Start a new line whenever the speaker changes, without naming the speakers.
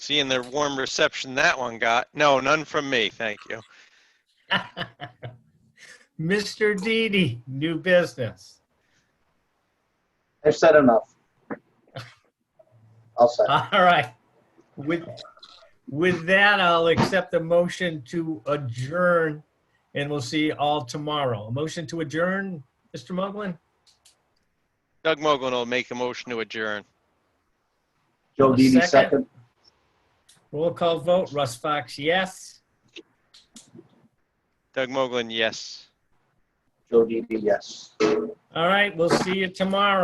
Seeing the warm reception that one got. No, none from me, thank you.
Mr. Didi, new business.
I've said enough. I'll say.
All right. With, with that, I'll accept the motion to adjourn, and we'll see you all tomorrow. A motion to adjourn, Mr. Moglen?
Doug Mogul will make a motion to adjourn.
Joe Didi,
Second.
second.
Roll call vote, Russ Fox, yes.
Doug Mogul, yes.
Joe Didi, yes.
All right, we'll see you tomorrow.